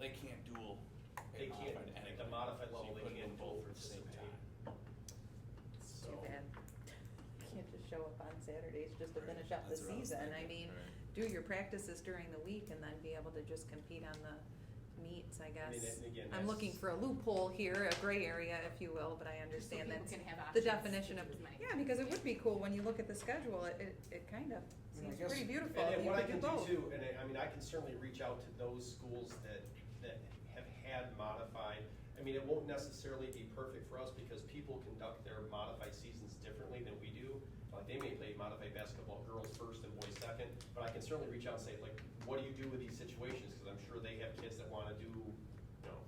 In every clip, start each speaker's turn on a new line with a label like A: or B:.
A: they can't dual. a
B: They can't,
A: modified and
B: at
A: a
B: the
A: clean.
B: modified
A: So you
B: level, they
A: couldn't do
B: can't
A: both
B: both
A: at the same
B: participate.
A: time.
C: It's
B: So-
C: too bad. Can't just show up on Saturdays just to
A: Right,
C: finish up the
A: that's what I was
C: season. I
A: thinking,
C: mean,
A: right.
C: do your practices during the week and then be able to just compete on the meets, I
B: I mean,
C: guess.
B: and again,
C: I'm looking
B: that's-
C: for a loophole here, a gray area, if you will, but I understand
D: people
C: that's
D: can have
C: the
D: options to
C: definition of,
D: choose many.
C: yeah, because it would be cool when you look at the schedule, it, it, it kind
B: I
C: of
B: mean, I
C: seems
B: guess-
C: pretty beautiful.
B: And
C: if
B: then
C: you
B: what I can
C: could
B: do
C: both.
B: too, and I, I mean, I can certainly reach out to those schools that, that have had modified. I mean, it won't necessarily be perfect for us because people conduct their modified seasons differently than we do. Like, they may play modified basketball girls first and boys second, but I can certainly reach out and say, like, what do you do with these situations? Cause I'm sure they have kids that wanna do, you know,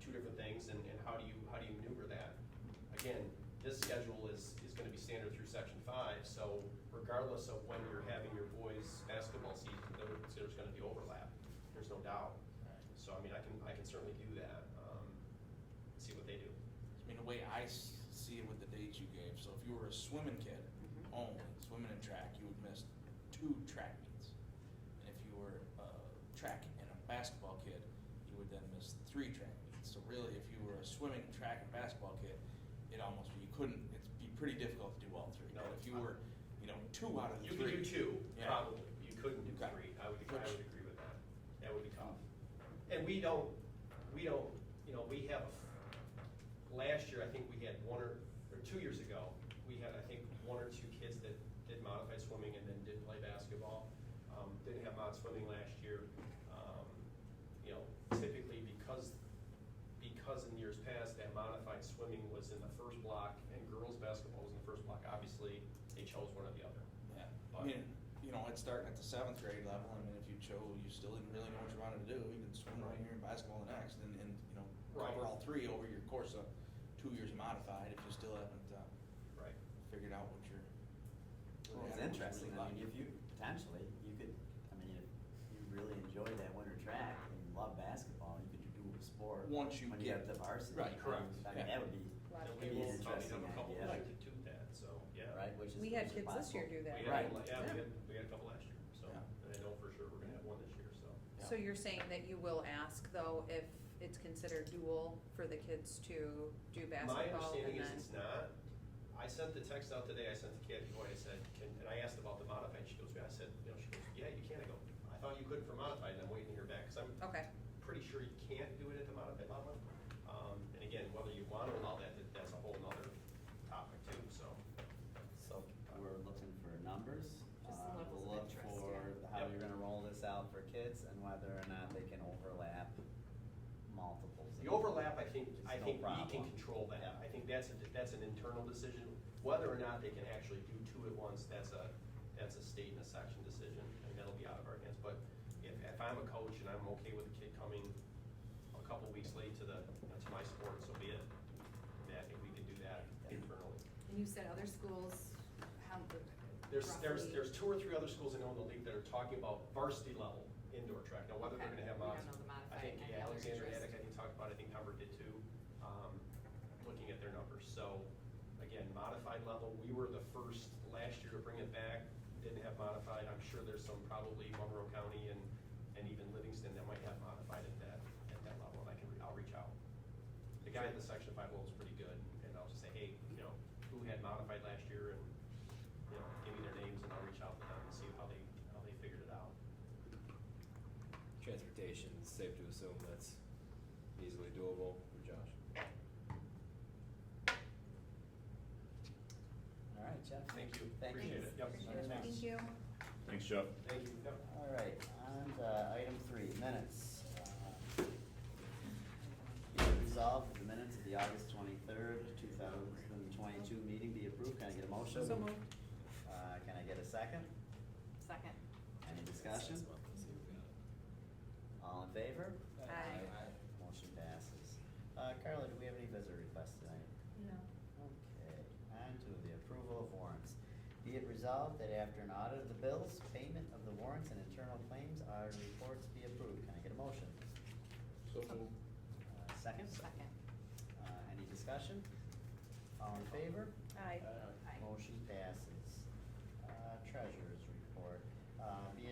B: two different things and, and how do you, how do you maneuver that? Again, this schedule is, is gonna be standard through section five, so regardless of when you're having your boys' basketball season, there, there's gonna be overlap, there's no doubt. So, I mean, I can, I can certainly do that, um, and see what they do.
A: I mean, the way I s- see it with the dates you gave, so if you were a swimming kid
C: Mhm.
A: only, swimming and track, you would miss two track meets. And if you were a track and a basketball kid, you would then miss three track meets. So really, if you were a swimming, track, and basketball kid, it almost, you couldn't, it'd be pretty difficult to do all three.
B: No,
A: But if you
B: I-
A: were, you know, two out of the
B: You
A: three.
B: could do two,
A: Yeah.
B: probably, you couldn't do
A: Okay.
B: three, I would, I
A: Which-
B: would agree with that, that would be tough. And we don't, we don't, you know, we have, last year, I think we had one or, or two years ago, we had, I think, one or two kids that did modified swimming and then didn't play basketball. Um, didn't have mod swimming last year, um, you know, typically because, because in years past, that modified swimming was in the first block and girls' basketball was in the first block, obviously, they chose one or the other.
A: Yeah, I mean, you know, it's starting at the seventh grade level, I mean, if you chose, you still didn't really know what you wanted to do, you can swim right here and basketball the next, and, and, you know, cover
B: Right.
A: all three over your course of two years modified, if you still haven't, uh,
B: Right.
A: figured out what you're.
E: Well, it's interesting, I mean, if you, potentially, you could, I mean, if you really enjoyed that winter track and love basketball, you could do a sport.
A: Once you
E: When you
A: get-
E: get to varsity.
A: Right,
E: I mean,
B: correct,
E: I mean,
A: yeah.
E: that would be,
C: Lot
B: And we
C: of
E: It'd be
B: will
E: an
B: probably have a
E: interesting
B: couple
E: idea.
B: that could do that, so, yeah.
E: right, which is.
C: We had
E: which is
C: kids this year
B: We
C: do
E: possible.
C: that.
B: had,
E: Right.
B: a- yeah,
C: Yeah.
B: we had, we had a couple last year, so,
A: Yeah.
B: and I know for sure we're gonna have one this year, so.
C: So you're saying that you will ask though if it's considered dual for the kids to do basketball
B: My
C: and then?
B: understanding is it's not. I sent the text out today, I sent to Kathy Hoy, I said, can, and I asked about the modified, she goes, yeah, I said, you know, she goes, yeah, you can, I go, I thought you could for modified, and I'm waiting to hear back, cause I'm
C: Okay,
B: pretty sure you can't do it at the modified level. Um, and again, whether you wanna allow that, that- that's a whole nother topic too, so.
E: So we're looking for numbers.
D: Just
E: uh,
D: the levels
E: we'll
D: of
E: look
D: interest,
E: for
D: yeah.
E: how
B: Yep.
E: you're gonna roll this out for kids and whether or not they can overlap multiples.
B: The overlap, I think,
E: It's
B: I
E: no
B: think we can
E: problem.
B: control that.
E: Yeah.
B: I think that's, a- that's an internal decision. Whether or not they can actually do two at once, that's a, that's a state and a section decision, and that'll be out of our hands. But if, if I'm a coach and I'm okay with a kid coming a couple weeks late to the, to my sport, so be it. That, if we can do that internally.
D: And you said other schools, how,
B: There's, there's,
D: roughly-
B: there's two or three other schools I know in the league that are talking about varsity level indoor track. Now, whether they're
D: Okay,
B: gonna have
D: we don't
B: mods.
D: know the
B: I think
D: modified
B: yeah,
D: and the other
B: Alexander
D: interest.
B: Attic, I think talked about, it, I think Humber did too, um, looking at their numbers. So, again, modified level, we were the first last year to bring it back, didn't have modified. I'm sure there's some probably Monroe County and, and even Livingston that might have modified at that, at that level, and I can, re- I'll reach out. The guy in the section five level is pretty good, and I'll just say, hey, you know, who had modified last year and, you know, give me their names and I'll reach out to them and see how they, how they figured it out.
F: Transportation, it's safe to assume that's easily doable for Josh.
E: All right, Jeff.
B: Thank you.
E: Thank you.
B: Appreciate it. Yep.
C: Appreciate it.
B: Thanks.
C: thank you.
G: Thanks, Jeff.
B: Thank you. Yep.
E: All right, on to item three, minutes. Uh, be it Resolved that the minutes of the August twenty-third, two thousand and twenty-two meeting be approved. Can I get a motion?
C: So moved.
E: Uh, can I get a second?
D: Second.
E: Any discussion? All in favor?
C: Aye.
E: Motion passes. Uh, Carla, do we have any visitor requests tonight?
C: No.
E: Okay, on to the approval of warrants. Be it resolved that after an audit of the bills, payment of the warrants and internal claims, audit reports be approved. Can I get a motion?
A: So
E: Uh, Second?
D: Second.
E: Uh, any discussion? All in favor?
C: Aye.
D: Aye.
B: Uh,
E: Motion passes. Uh,